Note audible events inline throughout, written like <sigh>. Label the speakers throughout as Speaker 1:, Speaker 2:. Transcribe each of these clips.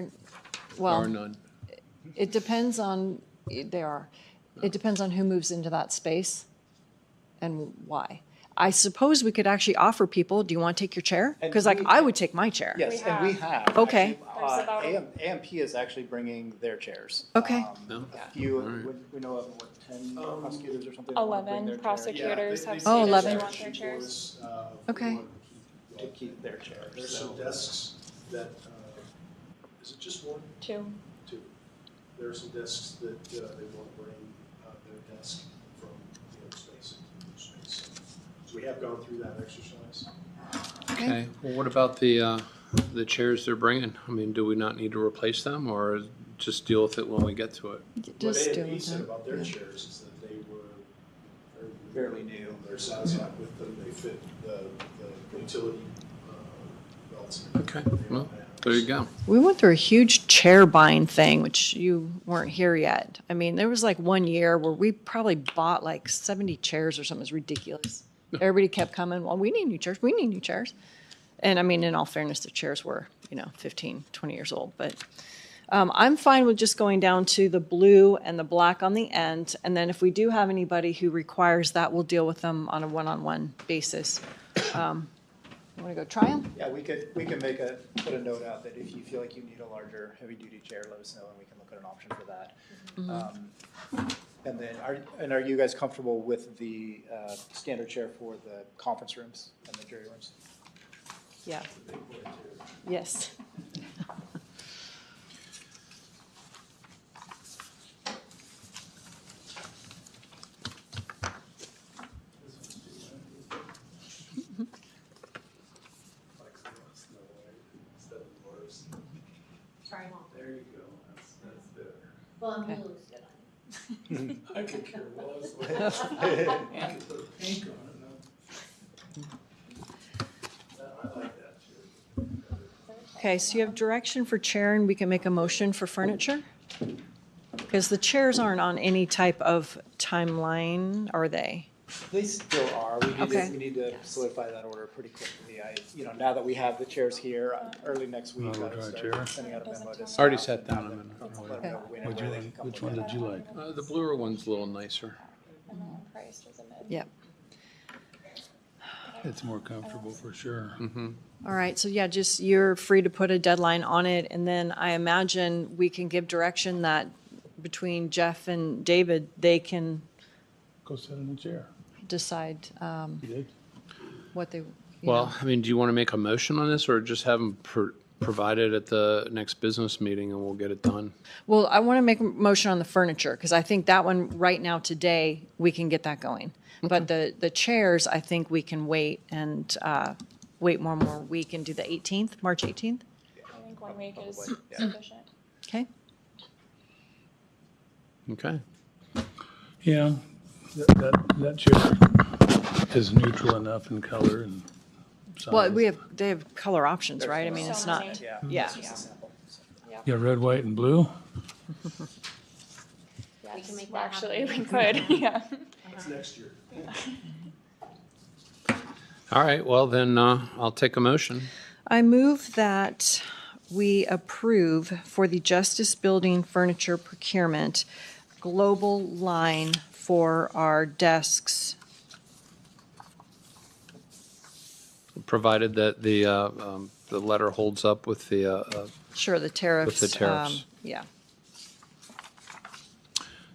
Speaker 1: There are
Speaker 2: well,
Speaker 1: none.
Speaker 2: it depends on, they are, it depends on who moves into that space and why. I suppose we could actually offer people, do you want to take your chair?
Speaker 3: And
Speaker 2: Because like,
Speaker 3: we-
Speaker 2: I would take my chair.
Speaker 3: Yes, and we have.
Speaker 2: Okay.
Speaker 3: Actually,
Speaker 4: There's
Speaker 3: uh,
Speaker 4: about a-
Speaker 3: AM AMP is actually bringing their chairs.
Speaker 2: Okay.
Speaker 3: Um,
Speaker 1: No?
Speaker 3: A few,
Speaker 1: All right.
Speaker 3: we- we know of, what, ten prosecutors or something? that wanna bring their
Speaker 4: Um, Eleven
Speaker 3: chair
Speaker 4: prosecutors
Speaker 5: Yeah, they-
Speaker 4: have
Speaker 5: they
Speaker 2: Oh,
Speaker 4: stated they
Speaker 2: 11.
Speaker 4: want their chairs.
Speaker 5: Uh,
Speaker 2: Okay.
Speaker 3: To keep their chairs.
Speaker 5: There's some desks that, uh, is it just one,
Speaker 4: Two.
Speaker 5: two? There are some desks that uh, they want to bring uh, their desk from the other space into the space. So we have gone through that exercise.
Speaker 1: Okay, well, what about the, uh, the chairs they're bringing? I mean, do we not need to replace them or just deal with it when we get to it?
Speaker 2: Just
Speaker 5: What
Speaker 2: do
Speaker 5: AMP said
Speaker 2: it.
Speaker 5: about their chairs is that they were
Speaker 3: Fairly new.
Speaker 5: They're satisfied with them, they fit the the utility uh, belts.
Speaker 1: Okay, well, There you go.
Speaker 2: We went through a huge chair buying thing, which you weren't here yet. I mean, there was like one year where we probably bought like seventy chairs or something. It was ridiculous. Everybody kept coming, well, we need new chairs, we need new chairs. And I mean, in all fairness, the chairs were, you know, 15, 20 years old, but, um, I'm fine with just going down to the blue and the black on the end. And then if we do have anybody who requires that, we'll deal with them on a one-on-one basis. Um, wanna go try them?
Speaker 3: Yeah, we could, we can make a, put a note out that if you feel like you need a larger heavy-duty chair, let us know and we can look at an option for that.
Speaker 2: Mm-hmm.
Speaker 3: Um, And then, are, and are you guys comfortable with the uh, standard chair for the conference rooms and the jury rooms?
Speaker 2: Yeah. Yes.
Speaker 6: Try them all.
Speaker 5: There you go, that's, that's better.
Speaker 6: Well, I'm
Speaker 2: Okay.
Speaker 6: really looks good on
Speaker 5: I could care less. I could put pink on it. no. I like that too.
Speaker 2: Okay, so you have direction for chair and we can make a motion for furniture? Because the chairs aren't on any type of timeline, are they?
Speaker 3: They still are. We need
Speaker 2: Okay.
Speaker 3: to, we need to solidify that order pretty quickly. I, you know, now that we have the chairs here, uh, early next week,
Speaker 7: Oh,
Speaker 3: I'll
Speaker 7: draw a
Speaker 3: start
Speaker 7: chair.
Speaker 3: sending out a memo to.
Speaker 1: Already
Speaker 3: staff
Speaker 1: sat
Speaker 3: and
Speaker 1: down
Speaker 3: have
Speaker 1: a
Speaker 3: them
Speaker 1: minute ago.
Speaker 3: let them know when and
Speaker 7: Which
Speaker 3: where they
Speaker 7: one,
Speaker 3: can come
Speaker 7: which
Speaker 3: look
Speaker 7: one
Speaker 3: at
Speaker 7: did
Speaker 3: it.
Speaker 7: you like?
Speaker 1: Uh, the bluer one's a little nicer.
Speaker 4: And then Christ was a mid.
Speaker 2: Yep.
Speaker 7: It's more comfortable for sure.
Speaker 2: All right, so yeah, just you're free to put a deadline on it. And then I imagine we can give direction that between Jeff and David, they can
Speaker 7: Go sit in the chair.
Speaker 2: decide um,
Speaker 7: You did?
Speaker 2: what they, you know.
Speaker 1: Well, I mean, do you want to make a motion on this or just have them pro- provided at the next business meeting and we'll get it done?
Speaker 2: Well, I want to make a motion on the furniture because I think that one, right now, today, we can get that going. But the, the chairs, I think we can wait and uh, wait one more week and do the 18th, March 18th.
Speaker 4: I think one
Speaker 7: Oh,
Speaker 4: week is
Speaker 3: Probably, yeah.
Speaker 4: sufficient.
Speaker 2: Okay?
Speaker 1: Okay.
Speaker 7: Yeah, that, that, that chair is neutral enough in color and size.
Speaker 2: Well, we have, they have color options,
Speaker 3: There's
Speaker 2: right? I mean,
Speaker 4: so
Speaker 2: it's
Speaker 4: many.
Speaker 2: not,
Speaker 3: Yeah.
Speaker 2: yeah.
Speaker 3: it's just a sample.
Speaker 7: Yeah, red, white, and blue.
Speaker 6: We can
Speaker 4: Yes,
Speaker 6: make
Speaker 4: well,
Speaker 6: that happen.
Speaker 4: actually, we could, <laughs> yeah.
Speaker 5: It's
Speaker 6: Uh-huh.
Speaker 5: next year.
Speaker 1: All right, well then, uh, I'll take a motion.
Speaker 2: I move that we approve for the Justice Building Furniture Procurement Global Line for our desks.
Speaker 1: Provided that the, uh, um, the letter holds up with the, uh, uh,
Speaker 2: Sure, the tariffs.
Speaker 1: tariffs.
Speaker 2: um, Yeah.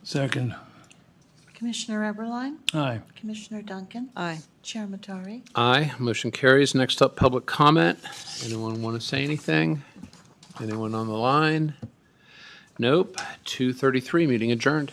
Speaker 7: Second,
Speaker 8: Commissioner Eberline,
Speaker 7: aye.
Speaker 8: Commissioner Duncan,
Speaker 2: Aye.
Speaker 8: Chair Matari.
Speaker 1: aye. Motion carries. Next up, public comment. Anyone want to say anything? Anyone on the line? Nope. 2:33, meeting adjourned.